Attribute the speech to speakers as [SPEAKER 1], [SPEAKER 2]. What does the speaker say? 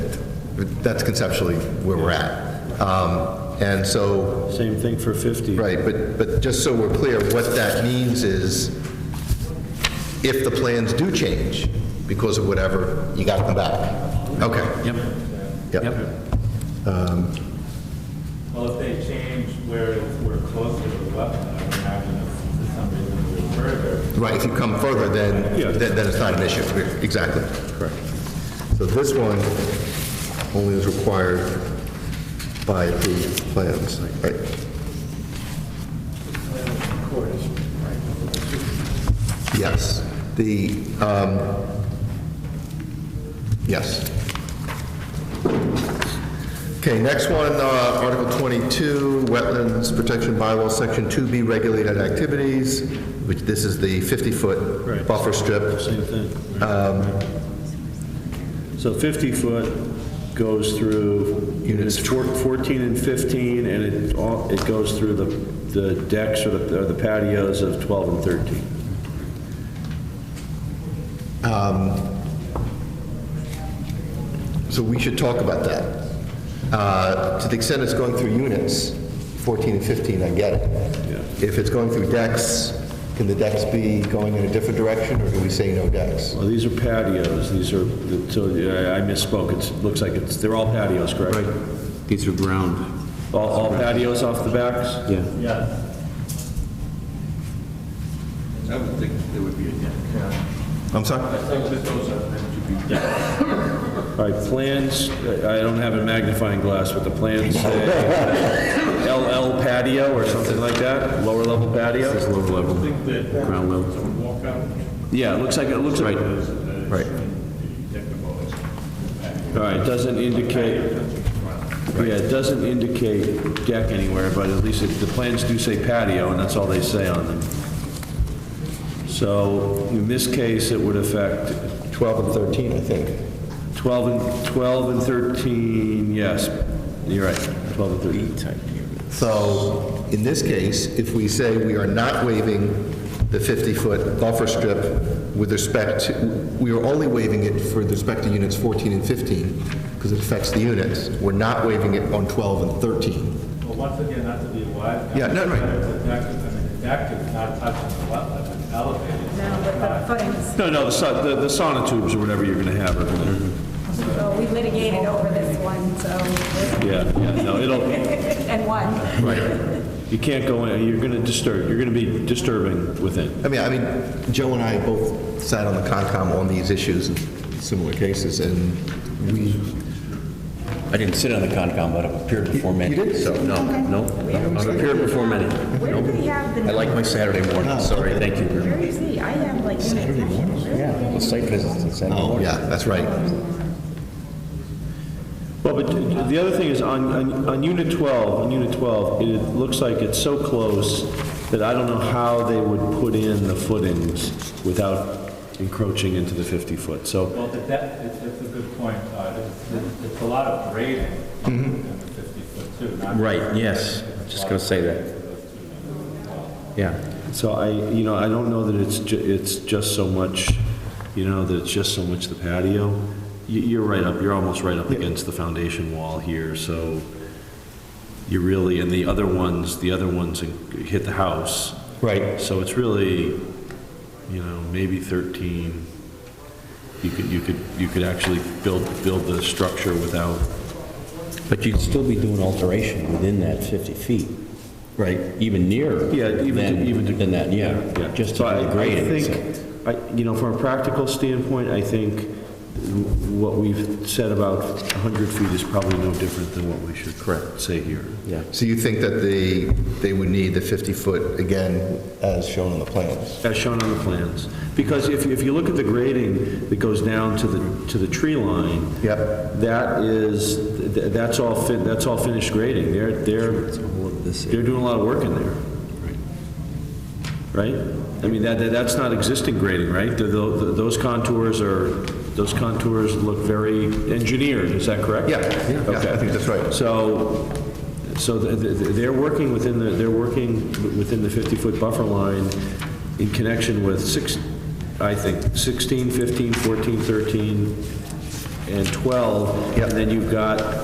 [SPEAKER 1] That's conceptually where we're at. Um, And so,
[SPEAKER 2] Same thing for 50.
[SPEAKER 1] right, but, but just so we're clear, what that means is if the plans do change because of whatever, you got to come back. Okay.
[SPEAKER 3] Yep.
[SPEAKER 1] Yep.
[SPEAKER 4] Well, if they change where we're closer to the wetland, I would imagine if for some reason we're further,
[SPEAKER 1] Right, if you come further, then,
[SPEAKER 2] Yeah.
[SPEAKER 1] then then it's not an issue. Exactly. Correct. So this one only is required by approved plans, right? Yes, the, um, yes. Okay, next one, uh, Article 22, Wetlands Protection Bylaw, Section 2B, Regulated Activities, which this is the 50-foot
[SPEAKER 2] Right.
[SPEAKER 1] buffer strip.
[SPEAKER 2] Same thing. So 50-foot goes through units four- 14 and 15, and it all, it goes through the the decks or the or the patios of 12 and 13.
[SPEAKER 1] So we should talk about that. Uh, To the extent it's going through units, 14 and 15, I get it. If it's going through decks, can the decks be going in a different direction, or do we say no decks?
[SPEAKER 2] Well, these are patios, these are, so yeah, I misspoke, it's, looks like it's, they're all patios, correct?
[SPEAKER 3] These are ground.
[SPEAKER 2] All all patios off the backs?
[SPEAKER 3] Yeah.
[SPEAKER 4] yes.
[SPEAKER 5] I would think there would be a deck.
[SPEAKER 1] I'm sorry?
[SPEAKER 2] All right, plans, I I don't have a magnifying glass, but the plans say LL patio or something like that, lower level patio?
[SPEAKER 3] It's lower level, ground level.
[SPEAKER 2] Yeah, it looks like, it looks like, all
[SPEAKER 1] Right.
[SPEAKER 2] right, it doesn't indicate, yeah, it doesn't indicate deck anywhere, but at least it- the plans do say patio, and that's all they say on them. So in this case, it would affect
[SPEAKER 1] 12 and 13, I think.
[SPEAKER 2] 12 and, 12 and 13, yes, you're right, 12 and 13.
[SPEAKER 1] So in this case, if we say we are not waiving the 50-foot buffer strip with respect, to- we are only waiving it for the respect to units 14 and 15, because it affects the units. We're not waiving it on 12 and 13.
[SPEAKER 4] Well, once again, not to be wise.
[SPEAKER 1] Yeah, no, right.
[SPEAKER 4] The deck, is- I mean, the deck is not touching the wetland, it's elevated.
[SPEAKER 6] No, but the footings,
[SPEAKER 2] No, no, the son- the the sonotubes or whatever you're going to have are going to...
[SPEAKER 6] so we litigated over this one, so.
[SPEAKER 2] Yeah, yeah, no, it'll,
[SPEAKER 6] And one.
[SPEAKER 2] you can't go in, you're going to disturb, you're going to be disturbing within.
[SPEAKER 1] I mean, I mean, Joe and I both sat on the Concom on these issues in similar cases, and we,
[SPEAKER 3] I didn't sit on the Concom, but I've appeared before many.
[SPEAKER 1] you did?
[SPEAKER 3] So, no, no, no, I've appeared before many.
[SPEAKER 6] Where do we have the?
[SPEAKER 3] I like my Saturday morning, sorry, thank you. very
[SPEAKER 6] Where
[SPEAKER 3] much.
[SPEAKER 6] is he? I have like. Saturday morning?
[SPEAKER 3] Yeah, well, site visits on Saturday
[SPEAKER 1] oh,
[SPEAKER 3] morning.
[SPEAKER 1] yeah, that's right.
[SPEAKER 2] Well, but the other thing is, on, on- on Unit 12, on Unit 12, it looks like it's so close that I don't know how they would put in the footings without encroaching into the 50-foot, so,
[SPEAKER 4] Well, the deck, it's, it's a good point, Todd. It's, it's a lot of grading
[SPEAKER 1] Mm-hmm.
[SPEAKER 4] in the 50 foot too, not.
[SPEAKER 3] Right, yes, just going to say that. Yeah.
[SPEAKER 2] so I, you know, I don't know that it's, ju- it's just so much, you know, that it's just so much the patio. You- You're right up, you're almost right up against the foundation wall here, so you really, and the other ones, the other ones hit the house.
[SPEAKER 1] Right.
[SPEAKER 2] So it's really, you know, maybe 13. You could, you could, you could actually build, build the structure without,
[SPEAKER 3] But you'd still be doing alteration within that 50 feet. Right. Even nearer.
[SPEAKER 2] Yeah, even to-
[SPEAKER 3] than-
[SPEAKER 2] even to-
[SPEAKER 3] Than that, yeah.
[SPEAKER 2] yeah.
[SPEAKER 3] Just
[SPEAKER 2] So I-
[SPEAKER 3] to grade
[SPEAKER 2] I
[SPEAKER 3] it. so-
[SPEAKER 2] think, I, you know, from a practical standpoint, I think what we've said about 100 feet is probably no different than what we should correct, say here.
[SPEAKER 3] Yeah.
[SPEAKER 1] So you think that they, they would need the 50-foot again, as shown on the plans?
[SPEAKER 2] As shown on the plans. Because if, if you look at the grading that goes down to the, to the tree line,
[SPEAKER 1] Yep.
[SPEAKER 2] That is, th- that's all, fi- that's all finished grading. They're, they're, they're doing a lot of work in there. Right? I mean, that, that- that's not existing grading, right? Th- tho- th- Those contours are, those contours look very engineered, is that correct?
[SPEAKER 1] Yeah, yeah, yeah, I
[SPEAKER 2] Okay.
[SPEAKER 1] think that's right.
[SPEAKER 2] So, so th- th- th- they're working within the, they're working w- within the 50-foot buffer line in connection with six, I think, 16, 15, 14, 13, and 12.
[SPEAKER 1] Yep.
[SPEAKER 2] And then you've got